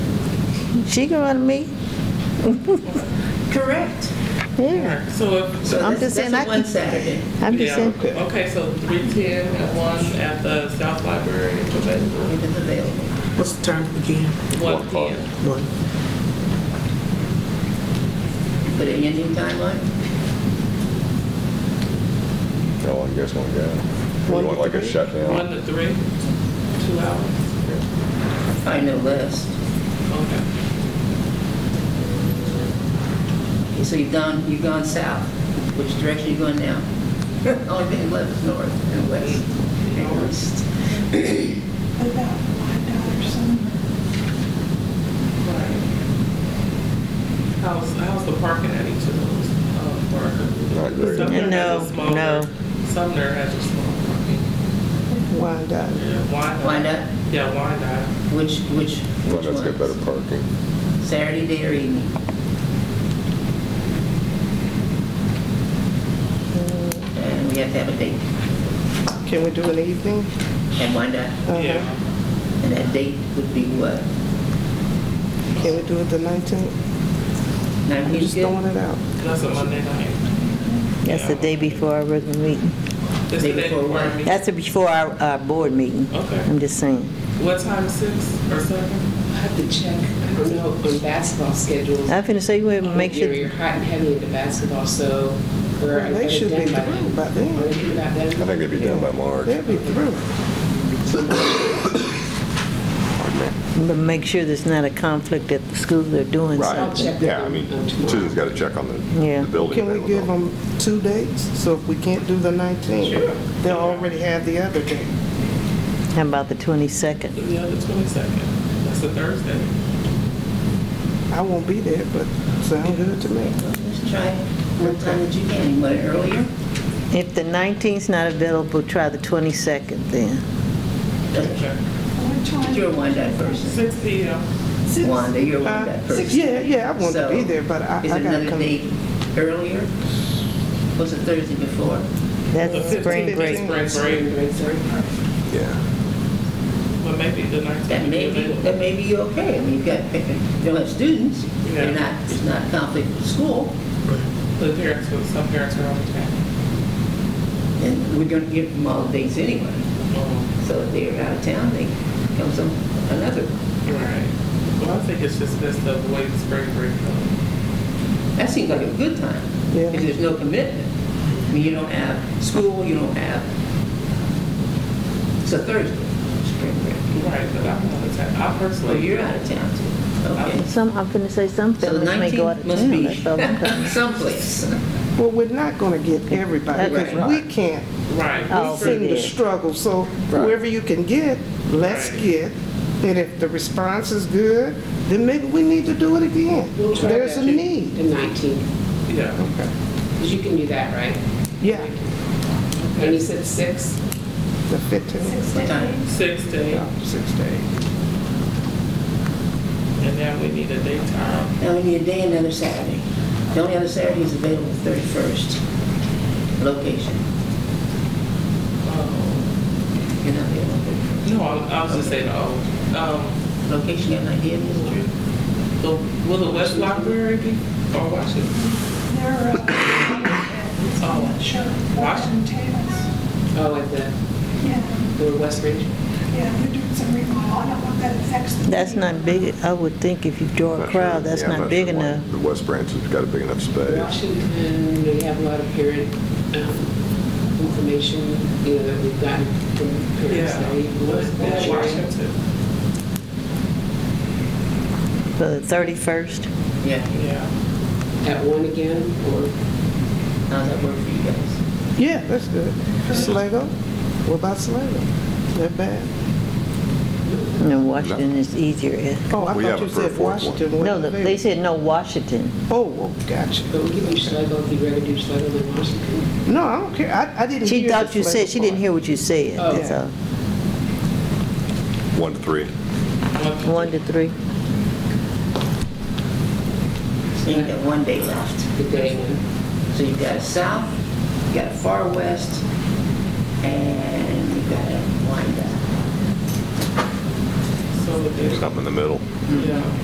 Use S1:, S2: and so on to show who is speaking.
S1: She can run me.
S2: Correct.
S1: Yeah.
S3: So if,
S2: So
S1: I'm
S2: that's-
S1: just saying I
S2: That's a one
S1: can-
S2: Saturday.
S1: I'm just
S3: yeah,
S1: saying,
S3: okay, so three ten at one at the South Library, is available.
S2: It is available.
S4: What's the time again?
S3: one p.m.
S4: One.
S2: Put an ending timeline?
S5: No, I guess one guy. We want like a
S3: One
S5: shutdown.
S3: to three, two hours.
S2: I know less.
S3: Okay.
S2: So you've gone, you've gone south. Which direction you going now? Only thing left is north and west and east.
S6: About five dollars somewhere.
S3: Right. How's, how's the parking at each of those um, parkers?
S5: Not great.
S3: Sumner has
S1: No,
S3: a smaller-
S1: no.
S3: Sumner has a small parking.
S4: Why not?
S3: Yeah, Wyandotte.
S2: Why not?
S3: Yeah, Wyandotte.
S2: Which, which,
S5: One
S2: which
S5: that's got better
S2: ones?
S5: parking.
S2: Saturday day or evening? And we have to have a date.
S4: Can we do an evening?
S2: And why not?
S3: Yeah.
S2: And that date would be what?
S4: Can we do it the 19th? I'm
S2: Nineteenth
S4: just throwing
S2: good?
S4: it out.
S3: That's a Monday night.
S1: that's the day before our regular meeting.
S3: That's the
S2: Day
S3: day
S2: before
S3: before our
S2: what?
S3: meeting.
S1: That's the before our, our board meeting.
S3: Okay.
S1: I'm just saying.
S3: What time, six or seven?
S7: I have to check, I don't know, on basketball schedules.
S1: I'm finna say, you wait,
S7: Um,
S1: make
S7: You're
S1: sure,
S7: you're hot and heavy into basketball, so we're.
S4: They should be
S7: done by
S4: through
S7: then.
S4: by then.
S7: Are we about
S5: I
S7: done?
S5: think it'd be done by March.
S4: They'll be through.
S1: but make sure there's not a conflict at the school they're doing
S7: I'll
S1: something.
S7: check.
S5: Right, yeah, I mean, Susan's got to check on the
S1: Yeah.
S5: the building.
S4: Can
S5: then
S4: we give them two dates? So if we can't do the 19th, they'll already have the other date.
S1: How about the 22nd?
S3: The other twenty-second. That's a Thursday.
S4: I won't be there, but sound good to me.
S2: Let's try it. What time did you get? You went earlier?
S1: If the 19th's not available, try the 22nd then.
S6: What time?
S2: You're a Wyandotte person.
S3: Six P M.
S6: Six.
S2: Wanda, you're a
S4: Uh,
S2: Wyandotte person.
S4: Yeah, yeah, I want to be
S2: So,
S4: there, but I I
S2: Is it
S4: gotta
S2: another
S4: come.
S2: date earlier? Was it Thursday before?
S1: That's spring break.
S3: Spring break,
S5: Yeah.
S3: but maybe the nineteenth.
S2: That may be, that may be okay. I mean, you've got, you don't have students. They're
S3: Yeah.
S2: not, it's not conflict with school.
S3: The parents, will- some parents are on the town.
S2: And we're gonna give them all the dates anyway.
S3: Um,
S2: So if they're out of town, they come some, another.
S3: Right. Well, I think it's just best to avoid spring break. though.
S2: That seems like a good time.
S4: Yeah.
S2: If there's no commitment. I mean, you don't have school, you don't have, it's a Thursday, spring break.
S3: Right, but I'm out of town. I
S2: Well,
S3: personally.
S2: Oh, you're out of town too. Okay.
S1: Some, I'm finna say some
S2: So the
S1: families may go out of
S2: 19th must
S1: town. That's all I'm telling
S2: be
S1: you.
S2: someplace.
S4: Well, we're not gonna get everybody, because
S2: Right.
S4: we can't,
S3: Right.
S1: Oh,
S4: we seem to
S1: yeah.
S4: struggle, so whoever you can get, let's
S3: Right.
S4: get. And if the response is good, then maybe we need to do it again.
S7: We'll try
S4: There's
S7: that
S4: a
S7: to-
S4: need.
S7: The 19th,
S3: Yeah.
S7: because you can do that, right?
S4: Yeah,
S7: And you said six?
S4: the 15th,
S6: Six to
S2: Time.
S6: eight.
S3: Six day,
S4: yeah, six days.
S3: and then we need a daytime.
S2: Now we need a day, another Saturday. The only other Saturday is available, 31st. Location,
S3: Um,
S2: you're not available.
S3: No, I I was just saying, oh, um,
S2: Location, you have an idea, Ms. Drew?
S3: the- will the West Library be, or Washington?
S6: They're, uh,
S3: Oh.
S6: Sure. Washington Tails.
S7: Oh, at the,
S6: Yeah,
S7: the West Ridge?
S6: yeah, they're doing some remodel. I don't know if that affects the.
S1: That's not big, I would think if you draw a crowd, that's
S5: Yeah, I'm
S1: not big
S5: sure why
S1: enough.
S5: The West Branch has got a big enough space.
S7: Washington, we have a lot of parent um, information, you know, that we've gotten from parents.
S3: Yeah.
S7: that we-
S3: Will Washington,
S1: For the 31st,
S2: Yeah,
S3: yeah.
S7: At one again, or?
S2: how's that work for you guys?
S4: Yeah, that's good. Sligo, what about Sligo? Is that bad?
S1: no, Washington is easier.
S4: Oh, I
S5: We have
S4: thought you
S5: a preferred
S4: said
S5: one.
S4: Washington.
S1: No,
S4: wasn't
S1: they
S4: there.
S1: said no Washington.
S4: Oh, oh, gotcha.
S7: But we can do Schlegel, if you'd rather do Schlegel than Washington.
S4: No, I don't care, I, I didn't hear.
S1: She thought
S4: the
S1: you said,
S4: Sligo
S1: she didn't
S4: part.
S1: hear what you said,
S7: Oh.
S1: that's all.
S5: One to three.
S3: One-
S1: One to three.
S2: So you got one day left.
S7: The day one.
S2: So you got a south, you got a far west, and you got a wind down.
S3: So the day,
S5: Something in the middle.
S3: yeah.